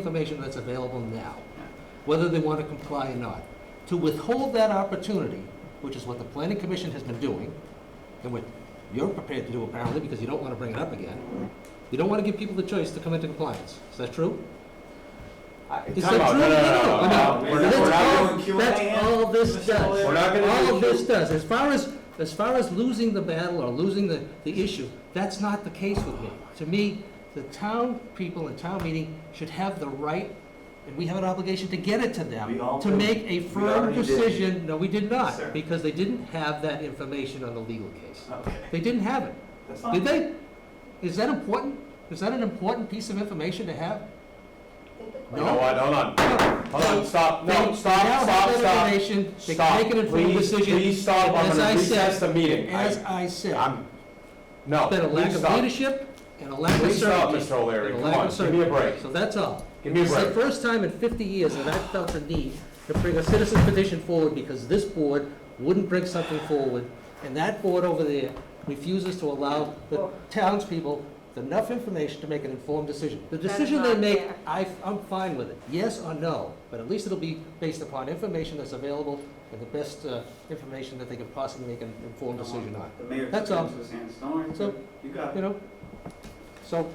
information that's available now, whether they want to comply or not. To withhold that opportunity, which is what the planning commission has been doing, and what you're prepared to do apparently, because you don't want to bring it up again, you don't want to give people the choice to come into compliance. Is that true? Is that Time out. true? No, no, no, No, no, no, no. no. We're not- That's we're not all- doing Q and A That's yet. all this does. We're not gonna All do of this Q- does, as far as, as far as losing the battle or losing the, the issue, that's not the case with me. To me, the town people in town meeting should have the right, and we have an obligation to get it to them, We all to do. make a We firm already did. decision. No, we did Yes, sir. not, because they didn't have that information on the legal case. Okay, They didn't have it. that's Did fine. they? Is that important? Is that an important piece of information to have? You know what, hold on, hold on, stop, no, They now stop, stop, have that stop. information. They Stop, can make an informed please, decision. please stop, And I'm as gonna I recess said- the meeting. As I- I said, I'm, no, been a lack please of stop. leadership and a lack of Please stop, certainty. Mr. O'Leary, and a come lack on, of give me a break, So that's all. give me a It's the break. first time in 50 years that I've felt the need to bring a citizen petition forward because this board wouldn't bring something forward, and that board over there refuses to allow the townspeople enough information to make an informed decision. The That's decision they not make, fair. I, I'm fine with it, yes or no, but at least it'll be based upon information that's available and the best uh, information that they can possibly make an informed decision on. The mayor That's took it all. into his hands, don't worry, So- you got you it. know? So,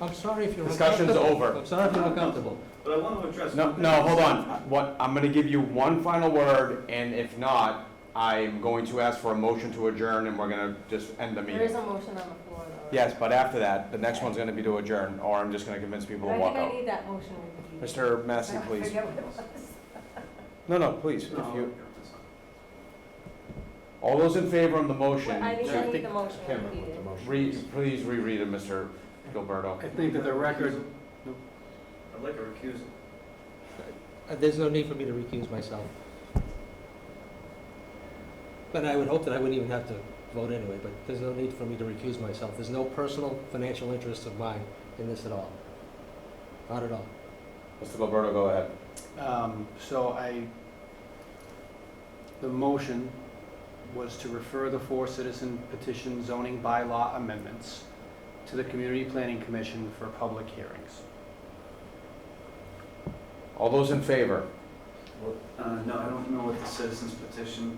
I'm sorry if you're Discussion's uncomfortable. over. I'm sorry if you're uncomfortable. But I want to address. No, one thing. no, hold on, what, I'm gonna give you one final word, and if not, I'm going to ask for a motion to adjourn, and we're gonna just end the There is meeting. a motion on the floor, though. Yes, but after that, the next one's gonna be to adjourn, or I'm just gonna convince people But to I walk think I out. need that motion repeated. Mr. Massey, I please. forget what it was. No, no, please, if No, you, that's fine. all those in favor on the motion, But I need, Yeah, I I need think the motion repeated. Re- Please reread it, Mr. Gilberto. I think that the record, I'd like a recusal. Uh, There's no need for me to recuse myself. But I would hope that I wouldn't even have to vote anyway, but there's no need for me to recuse myself. There's no personal financial interest of mine in this at all. Not at all. Mr. Gilberto, go ahead. um, so I, the motion was to refer the four citizen petition zoning bylaw amendments to the Community Planning Commission for public hearings. All those in favor? Uh, no, I don't know what the citizens petition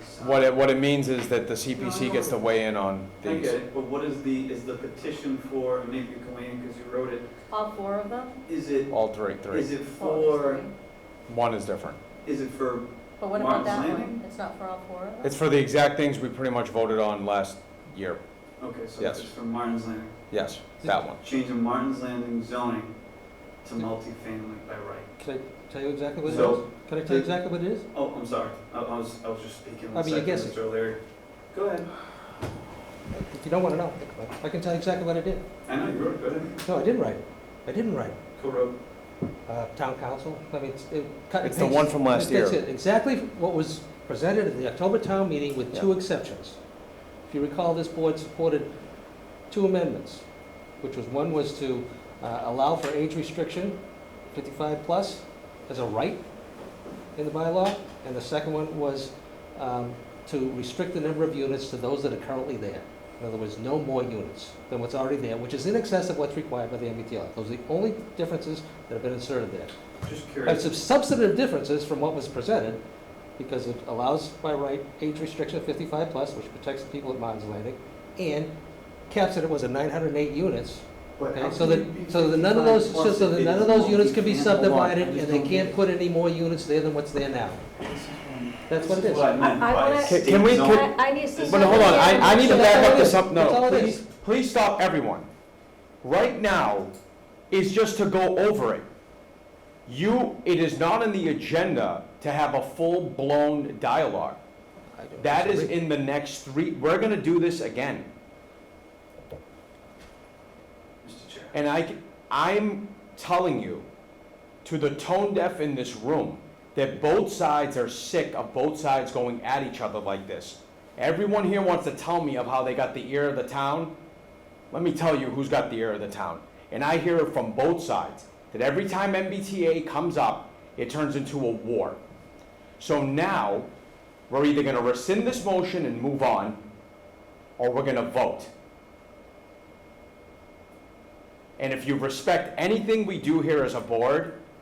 is. What it, what it means is that the CPC gets to weigh in on I get these. it, but what is the, is the petition for, and maybe you can weigh in because you wrote it, All four of them? is it, All three, three. is it Well, there's for, three. One is different. is it for, But what about Martin's that one? Landing? It's not for all four of them? It's for the exact things we pretty much voted on last year. okay, so Yes. it's for Martin's Landing. Yes, that one. Changing Martin's Landing zoning to multifamily by right. Can I tell you exactly what it is? So- Can I tell you exactly what it is? Oh, I'm sorry, I I was, I was just speaking I one mean, you're second, guessing. Mr. O'Leary. Go ahead. If you don't want to know, I can tell you exactly what I did. I know you wrote it, go ahead. No, I didn't write it. I didn't write it. Co-wrote. uh, town council. I mean, it's, it cut and It's the paste. one from last That's year. it. Exactly what was presented at the October town meeting with two Yeah. exceptions. If you recall, this board supported two amendments, which was, one was to uh, allow for age restriction, 55 plus, as a right in the bylaw, and the second one was um, to restrict the number of units to those that are currently there. In other words, no more units than what's already there, which is in excess of what's required by the MBTA. Those are the only differences that have been inserted there. Just Have curious. some substantive differences from what was presented, because it allows by right age restriction of fifty-five plus, which protects the people at Martin's Landing, and caps it, it was at nine hundred and eight units. But okay? how So can you that, be so that none of those, 55 so so that plus none if of it is those units can be multifamily? Hold on, I subdivided, just and they don't can't get put any more units there than what's there now. That's what it This is. is what I meant I- I by wanna- Can- can we- state can- zoning. I, I need to see. But hold on, I, I need to back up this up, That's all no, it please, is. please stop everyone. Right now is just to go over it. You, it is not on the agenda to have a full-blown dialogue. I don't That is disagree. in the next three, we're gonna do this again. Mr. Chair. And I, am telling you, to the tone deaf in this room, that both sides are sick of both sides going at each other like this. Everyone here wants to tell me of how they got the ear of the town. Let me tell you who's got the ear of the town. And I hear it from both sides, that every time MBTA comes up, it turns into a war. So now, we're either gonna rescind this motion and move on, or we're gonna vote. And if you respect anything we do here as a board,